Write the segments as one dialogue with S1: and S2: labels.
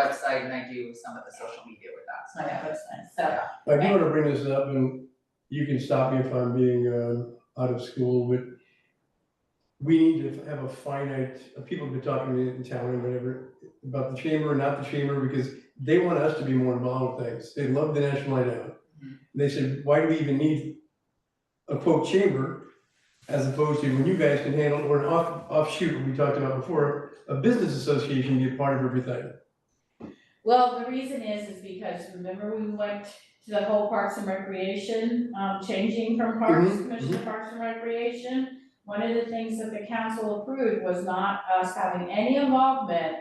S1: website and I do some of the social media with that, so.
S2: on that website.
S1: So,
S3: I do wanna bring this up, and you can stop me if I'm being, uh, out of school, but we need to have a finite, uh, people have been talking to me in town and whatever, about the chamber and not the chamber, because they want us to be more involved with things, they love the National Night Out.
S1: Mhm.
S3: They said, why do we even need a quote chamber, as opposed to when you guys can handle, or an off, offshoot, we talked about before, a business association be a part of everything.
S2: Well, the reason is, is because remember we went to the whole Parks and Recreation, um, changing from Parks,
S3: Mhm,
S2: Commission to Parks and Recreation? One of the things that the council approved was not us having any involvement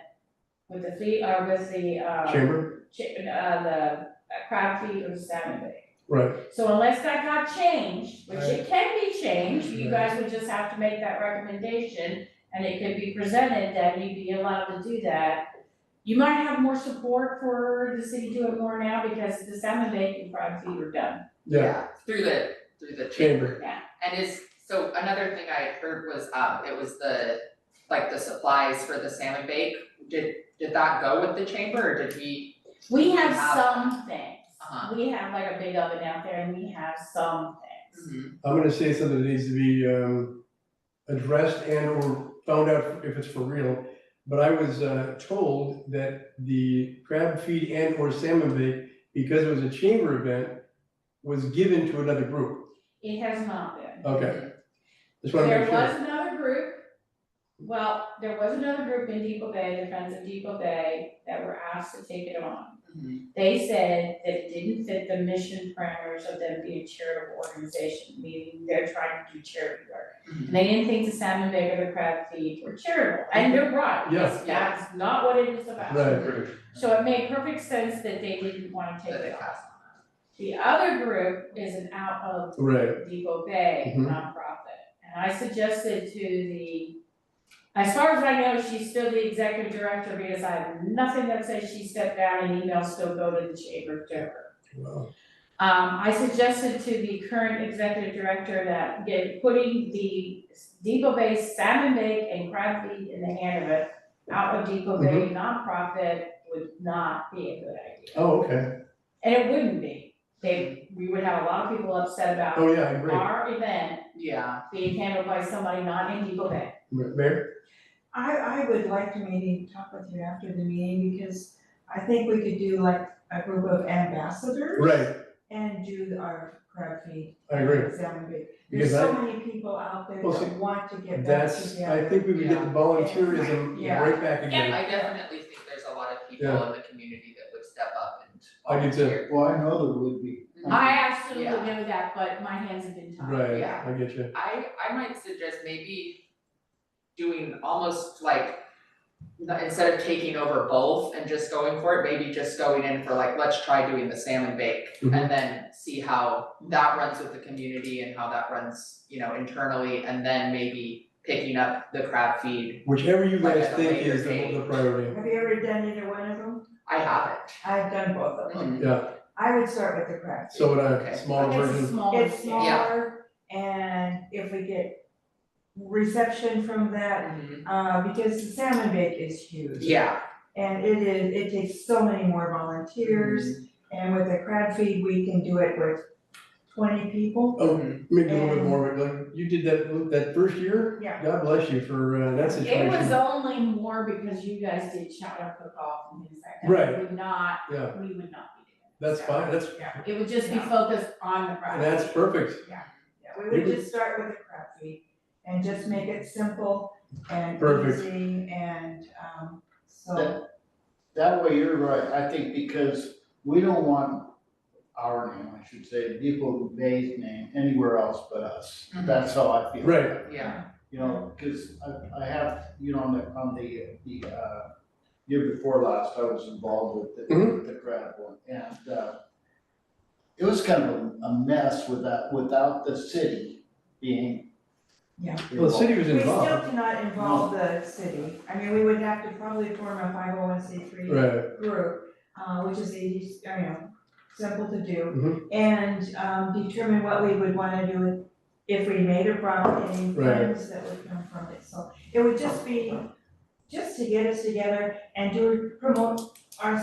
S2: with the fleet, or with the, uh,
S3: Chamber,
S2: chi- uh, the crowd fee or salmon bait.
S3: right,
S2: So unless that got changed, which it can be changed, you
S3: Right.
S2: guys would just have to make that recommendation and it could be presented that you'd be allowed to do that. You might have more support for the city doing more now because the salmon bank and crab feed are done.
S3: yeah,
S1: Through the, through the chamber.
S3: chamber,
S1: And it's, so another thing I had heard was, um, it was the, like the supplies for the salmon bake. Did, did that go with the chamber or did we,
S2: We have
S1: Wow.
S2: some things.
S1: Uh-huh.
S2: We have like a big oven out there and we have some things.
S1: Mm-hmm.
S3: I'm gonna say something that needs to be, um, addressed and or found out if it's for real. But I was, uh, told that the crab feed and or salmon bake, because it was a chamber event, was given to another group,
S2: It has not been.
S3: okay? Just wanna Uh, make
S2: There
S3: sure,
S2: was another group, well, there was another group in Depot Bay, the Friends of Depot Bay, that were asked to take it on.
S1: Mhm.
S2: They said that it didn't fit the mission parameters of them being a charitable organization, meaning they're trying to do charity work.
S1: Mm-hmm.
S2: And they didn't think the salmon bake or the crab feed were charitable, and they're right,
S1: Yeah.
S2: because that's not what it is about.
S3: right,
S2: So it made perfect sense that they didn't wanna take
S1: That they
S2: it on.
S1: passed
S2: The other group is an out of
S3: right,
S2: Depot Bay
S3: Mhm.
S2: nonprofit. And I suggested to the, as far as I know, she's still the executive director because I have nothing that says she stepped down and emails still go to the chamber to her.
S3: well,
S2: Um, I suggested to the current executive director that get, putting the Depot Bay salmon bake and crab feed in the hand of a out of Depot Bay nonprofit would not be a good idea.
S3: oh, okay,
S2: And it wouldn't be. They, we would have a lot of people upset about
S3: oh, yeah, I agree.
S2: our event
S1: on. Yeah,
S2: being handled by somebody not in Depot Bay.
S3: Ma- Mayor,
S4: I, I would like to maybe talk with you after the meeting, because I think we could do like a group of ambassadors.
S3: right,
S4: And do our crab feed.
S3: I agree,
S4: Salmon bait.
S3: because
S4: There's so
S3: I,
S4: many people out there
S3: Well, see,
S4: that want to get back
S3: that's, I
S4: together.
S3: think we would get the volunteerism
S4: Yeah.
S3: right back again.
S1: I definitely think there's a lot of people
S3: Yeah.
S1: in the community that would step up and
S3: I do too.
S1: volunteer.
S5: Well, I know there would be.
S2: I absolutely
S1: Yeah.
S2: know that, but my hands have been tied.
S3: Right,
S1: Yeah.
S3: I get you,
S1: I I might suggest maybe doing almost like n- instead of taking over both and just going for it, maybe just going in for like, let's try doing the salmon bake
S3: Mhm.
S1: and then see how that runs with the community and how that runs, you know, internally, and then maybe picking up the crab feed.
S3: whichever you
S1: Like
S3: guys
S1: at a
S3: think
S1: later
S3: is the,
S1: date.
S3: the priority,
S4: Have you ever done either one of them?
S1: I have it.
S4: I've done both of them.
S1: Mhm.
S3: yeah,
S4: I would start with the crab feed.
S3: so would
S1: Okay.
S3: I, smaller version.
S2: It's a smaller
S4: It's
S2: scale.
S1: Yeah.
S4: smaller, and if we get reception from that,
S1: Mhm.
S4: uh, because the salmon bake is huge.
S1: Yeah,
S4: And it is, it takes so many more volunteers,
S3: Mm-hmm.
S4: and with the crab feed, we can do it with twenty people.
S3: Oh,
S1: Mhm.
S3: maybe a little bit
S4: And-
S3: more, but like, you did that, that first year?
S4: Yeah.
S3: God bless you for, uh, that
S2: It
S3: situation.
S2: was only more because you guys did shout out cook off and things like that.
S3: Right.
S2: We would not,
S3: Yeah,
S2: we would not be doing that.
S3: that's
S2: So
S3: fine, that's,
S2: It would just be
S4: Yeah.
S2: focused on the project.
S3: that's perfect,
S4: Yeah, we would
S3: Maybe-
S4: just start with the crab feed and just make it simple and
S3: Perfect.
S4: easy and, um, so.
S5: That- That way, you're right, I think, because we don't want our name, I should say, Depot Bay's name anywhere else but us.
S1: Mhm.
S5: That's how I feel.
S3: Right.
S1: yeah,
S5: You know, because I, I have, you know, on the, on the, the, uh, year before last, I was involved with the,
S3: Mhm.
S5: with the crab one, and, uh, it was kind of a- a mess without, without the city being.
S4: Yeah.
S3: well, the city was
S4: We still
S3: involved,
S4: cannot involve the city, I mean, we would have to probably form a five oh one C three
S3: right,
S4: group, uh, which is easy, I mean, simple to
S3: Mhm.
S4: do. And, um, determine what we would wanna do if we made a profit, any
S3: Right.
S4: funds that would come from it, so it would just be, just to get us together and do, promote our